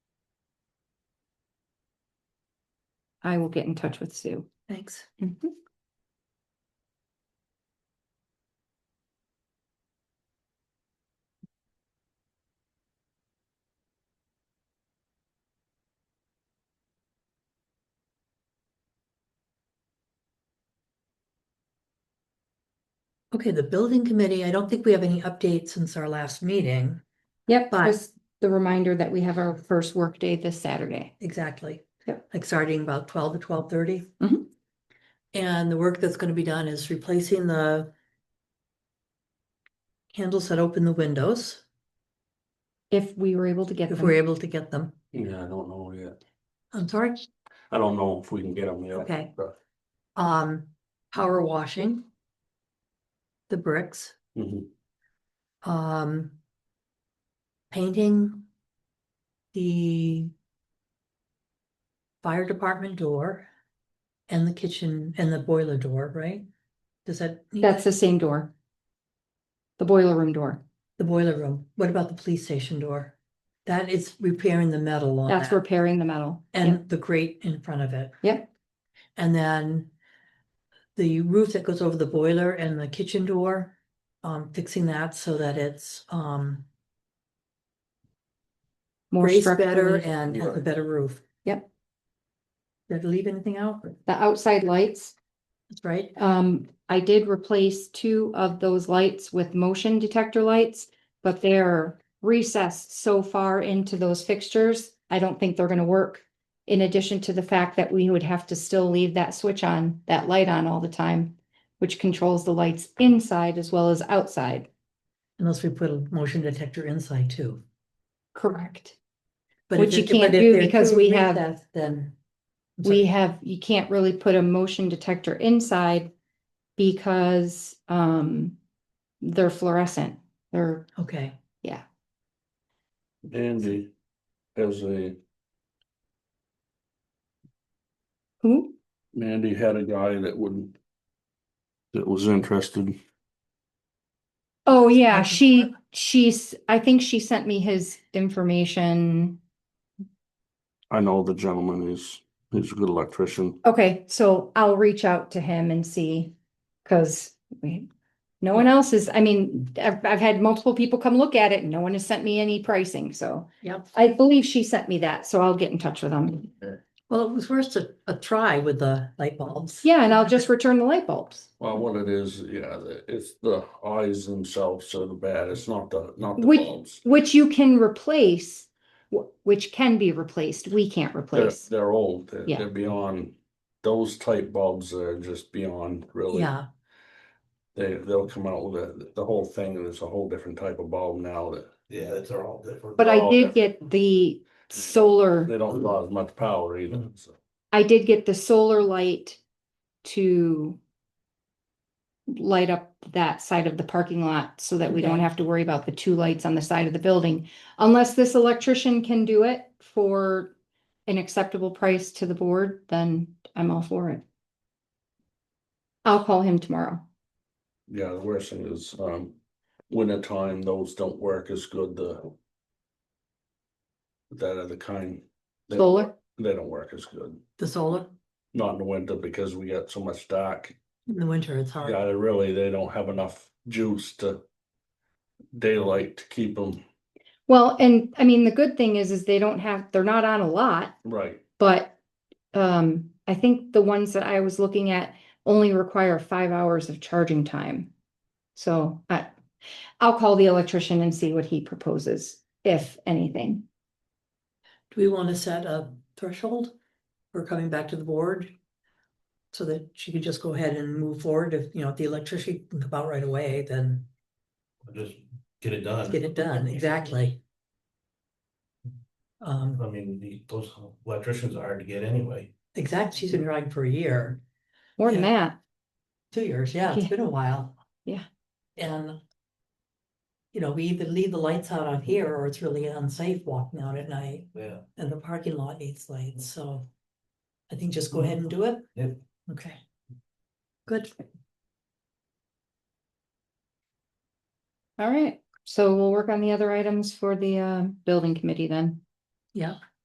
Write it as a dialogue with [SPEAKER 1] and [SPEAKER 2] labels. [SPEAKER 1] I will get in touch with Sue.
[SPEAKER 2] Thanks.
[SPEAKER 1] Mhm.
[SPEAKER 2] Okay, the building committee, I don't think we have any updates since our last meeting,
[SPEAKER 1] Yep,
[SPEAKER 2] But-
[SPEAKER 1] just the reminder that we have our first workday this Saturday.
[SPEAKER 2] exactly.
[SPEAKER 1] Yep.
[SPEAKER 2] Like starting about twelve to twelve thirty.
[SPEAKER 1] Mhm.
[SPEAKER 2] And the work that's gonna be done is replacing the handles that open the windows,
[SPEAKER 1] If we were able to get
[SPEAKER 2] if we're
[SPEAKER 1] them,
[SPEAKER 2] able to get them.
[SPEAKER 3] Yeah, I don't know yet.
[SPEAKER 2] I'm sorry,
[SPEAKER 3] I don't know if we can get them yet.
[SPEAKER 2] Okay.
[SPEAKER 3] but-
[SPEAKER 2] um, power washing. The bricks,
[SPEAKER 3] Mhm.
[SPEAKER 2] um. Painting. The. Fire department door. And the kitchen and the boiler door, right? Does that? need-
[SPEAKER 1] that's the same door. The boiler room door.
[SPEAKER 2] The boiler room. What about the police station door? That is repairing the metal on
[SPEAKER 1] That's
[SPEAKER 2] that.
[SPEAKER 1] repairing the metal. Yep.
[SPEAKER 2] And the grate in front of it.
[SPEAKER 1] Yep.
[SPEAKER 2] And then the roof that goes over the boiler and the kitchen door, um, fixing that so that it's, um,
[SPEAKER 1] More
[SPEAKER 2] raised better
[SPEAKER 1] structurally,
[SPEAKER 2] and has a
[SPEAKER 3] Right.
[SPEAKER 2] better roof.
[SPEAKER 1] Yep.
[SPEAKER 2] Did I leave anything out?
[SPEAKER 1] the outside lights,
[SPEAKER 2] That's right.
[SPEAKER 1] um, I did replace two of those lights with motion detector lights. But they're recessed so far into those fixtures, I don't think they're gonna work. In addition to the fact that we would have to still leave that switch on, that light on all the time. Which controls the lights inside as well as outside.
[SPEAKER 2] Unless we put a motion detector inside too.
[SPEAKER 1] Correct.
[SPEAKER 2] But
[SPEAKER 1] Which
[SPEAKER 2] if
[SPEAKER 1] you
[SPEAKER 2] it- but
[SPEAKER 1] can't
[SPEAKER 2] if
[SPEAKER 1] do
[SPEAKER 2] they're
[SPEAKER 1] because
[SPEAKER 2] too
[SPEAKER 1] we have-
[SPEAKER 2] recessed, Then. I'm sorry.
[SPEAKER 1] We have, you can't really put a motion detector inside because um they're fluorescent. They're,
[SPEAKER 2] Okay,
[SPEAKER 3] Andy has a,
[SPEAKER 1] who?
[SPEAKER 3] Mandy had a guy that would. That was interested.
[SPEAKER 1] Oh, yeah,
[SPEAKER 2] Like-
[SPEAKER 1] she, she's, I think she sent me his information.
[SPEAKER 3] I know the gentleman is, he's a good electrician.
[SPEAKER 1] Okay, so I'll reach out to him and see, cause we, no one else is, I mean, I've, I've had multiple people come look at it and no one has sent me any pricing, so.
[SPEAKER 2] yep.
[SPEAKER 1] I believe she sent me that, so I'll get in touch with them.
[SPEAKER 2] Well, it was worth a, a try with the light bulbs.
[SPEAKER 1] Yeah, and I'll just return the light bulbs.
[SPEAKER 3] Well, what it is, yeah, the- it's the eyes themselves are the bad. It's not the, not the
[SPEAKER 1] Which-
[SPEAKER 3] bulbs.
[SPEAKER 1] Which you can replace, wh- which can be replaced, we can't
[SPEAKER 3] They're,
[SPEAKER 1] replace.
[SPEAKER 3] they're old. They're
[SPEAKER 1] Yeah.
[SPEAKER 3] they're beyond, those type bulbs are just beyond really.
[SPEAKER 2] Yeah,
[SPEAKER 3] They, they'll come out with the, the whole thing and it's a whole different type of bulb now that.
[SPEAKER 4] Yeah, it's are all different.
[SPEAKER 1] But I
[SPEAKER 3] Oh,
[SPEAKER 1] did
[SPEAKER 3] okay.
[SPEAKER 1] get the solar,
[SPEAKER 3] They don't draw as much power either, so.
[SPEAKER 1] I did get the solar light to light up that side of the parking lot so that we don't
[SPEAKER 2] Okay.
[SPEAKER 1] have to worry about the two lights on the side of the building. Unless this electrician can do it for an acceptable price to the board, then I'm all for it. I'll call him tomorrow.
[SPEAKER 3] Yeah, the worst thing is, um, winter time, those don't work as good, the. That other kind. they don't
[SPEAKER 1] Solar?
[SPEAKER 3] work- They don't work as good,
[SPEAKER 2] the solar
[SPEAKER 3] not in the winter because we got so much dark,
[SPEAKER 2] in the winter, it's hard.
[SPEAKER 3] yeah, they really, they don't have enough juice to. Daylight to keep them,
[SPEAKER 1] Well, and I mean, the good thing is, is they don't have, they're not on a lot,
[SPEAKER 3] right,
[SPEAKER 1] but um, I think the ones that I was looking at only require five hours of charging time. So I, I'll call the electrician and see what he proposes, if anything.
[SPEAKER 2] Do we want to set a threshold for coming back to the board? So that she could just go ahead and move forward if, you know, if the electricity can come out right away, then
[SPEAKER 4] Just get it done.
[SPEAKER 2] get it done, exactly.
[SPEAKER 4] I
[SPEAKER 2] Um,
[SPEAKER 4] mean, the- those electricians are hard to get anyway.
[SPEAKER 2] exact, she's been riding for a year.
[SPEAKER 1] More than that,
[SPEAKER 2] Two years, yeah, it's
[SPEAKER 1] Yeah.
[SPEAKER 2] been a while.
[SPEAKER 1] Yeah.
[SPEAKER 2] And. You know, we either leave the lights out on here or it's really unsafe walking out at night
[SPEAKER 4] Yeah.
[SPEAKER 2] and the parking lot needs lights, so. I think just go ahead and do it.
[SPEAKER 4] Yeah.
[SPEAKER 2] Okay. Good.
[SPEAKER 1] all right, so we'll work on the other items for the uh, building committee then.
[SPEAKER 2] Yeah.